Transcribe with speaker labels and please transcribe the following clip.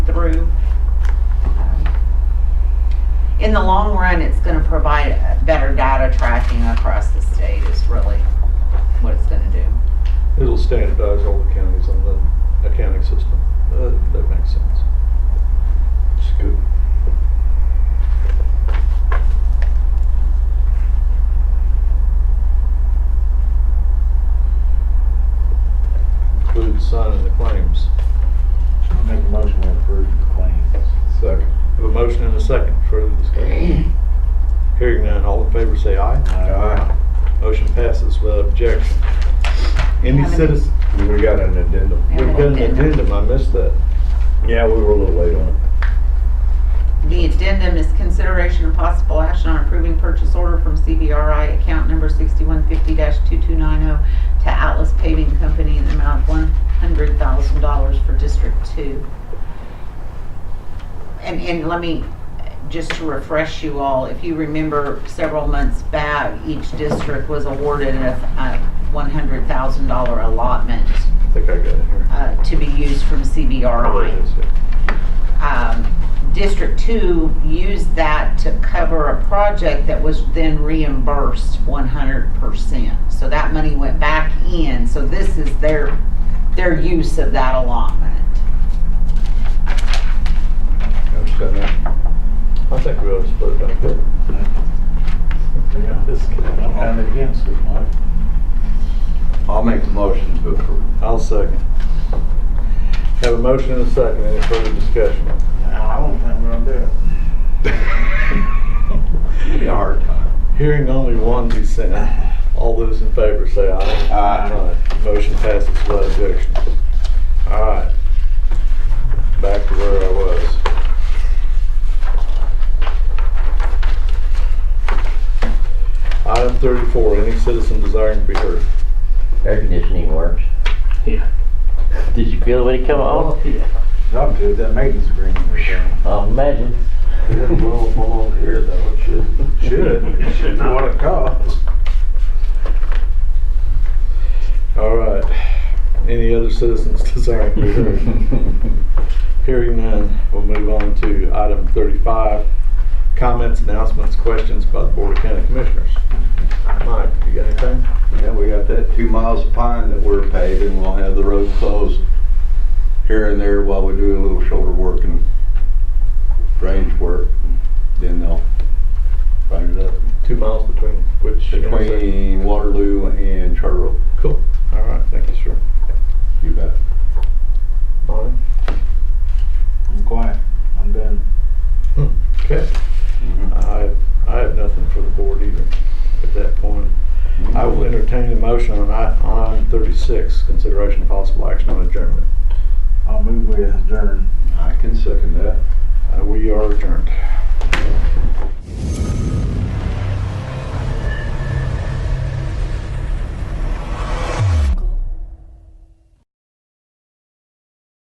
Speaker 1: through. Um, In the long run, it's gonna provide a better data tracking across the state is really what it's gonna do.
Speaker 2: It'll standardize all the counties on the accounting system. Uh, That makes sense. It's good. Includes signing the claims.
Speaker 3: I'll make a motion to approve the claims.
Speaker 2: Second. Have a motion and a second. Further discussion? Hearing none, all in favor say aye.
Speaker 3: Aye.
Speaker 2: Motion passes without objection. Any
Speaker 1: Have an-
Speaker 2: citizen,
Speaker 4: We got an addendum.
Speaker 1: Yeah.
Speaker 2: we've got an addendum, I missed that.
Speaker 4: Yeah, we were a little late on it.
Speaker 1: The addendum is consideration of possible action on approving purchase order from CBRI account number sixty-one fifty two-two-nine-oh oh to Atlas Paving Company in the amount of one hundred thousand dollars for District Two. And, and let me, uh, just to refresh you all, if you remember several months back, each district was awarded a, a one hundred thousand dollar allotment,
Speaker 2: I think I got it here.
Speaker 1: uh, to be used from
Speaker 2: Probably
Speaker 1: CBRI
Speaker 2: is it.
Speaker 1: um, District Two used that to cover a project that was then reimbursed one hundred percent. So that money went back in, so this is their, their use of that allotment.
Speaker 4: You Understand that?
Speaker 2: I think we ought to split it up.
Speaker 3: Yeah, this, I'm kind of against it, Mike.
Speaker 4: I'll make the motion to approve.
Speaker 2: I'll second. Have a motion and a second, any further discussion?
Speaker 3: No, I don't think we're gonna do it.
Speaker 4: It'll be a hard time.
Speaker 2: Hearing only one dissent, all those in favor say aye.
Speaker 4: Aye.
Speaker 2: Motion passes without objection. All right, back to where I was. Item thirty-four, any citizen desiring to be heard.
Speaker 5: Air conditioning works.
Speaker 3: Yeah.
Speaker 5: Did you feel it when it come on?
Speaker 3: Not good, that maintenance agreement was done.
Speaker 5: I'll imagine.
Speaker 4: It didn't blow up on here though, it should.
Speaker 2: Should.
Speaker 3: Should not. What it costs.
Speaker 2: All right, any other citizens desiring to be heard? Hearing none, we'll move on to item thirty-five, comments, announcements, questions by the Board of County Commissioners. Mike, you got anything?
Speaker 4: Yeah, we got that two miles of pine that we're paving, we'll have the road closed here and there while we do a little shoulder work and range work. Then they'll grind it up
Speaker 2: Two miles between which? intersection?
Speaker 4: between Waterloo and Charter Oak.
Speaker 2: Cool, all right, thank you, sir.
Speaker 4: You bet.
Speaker 2: Bonnie?
Speaker 3: I'm quiet, I'm done.
Speaker 2: Hmm. Okay, I, I have nothing for the board either at that point. I
Speaker 4: Uh,
Speaker 2: will entertain a motion on i- on item thirty-six, consideration of possible action on adjournment.
Speaker 3: I'll move we adjourn.
Speaker 4: I can second that.
Speaker 2: Uh, We are adjourned.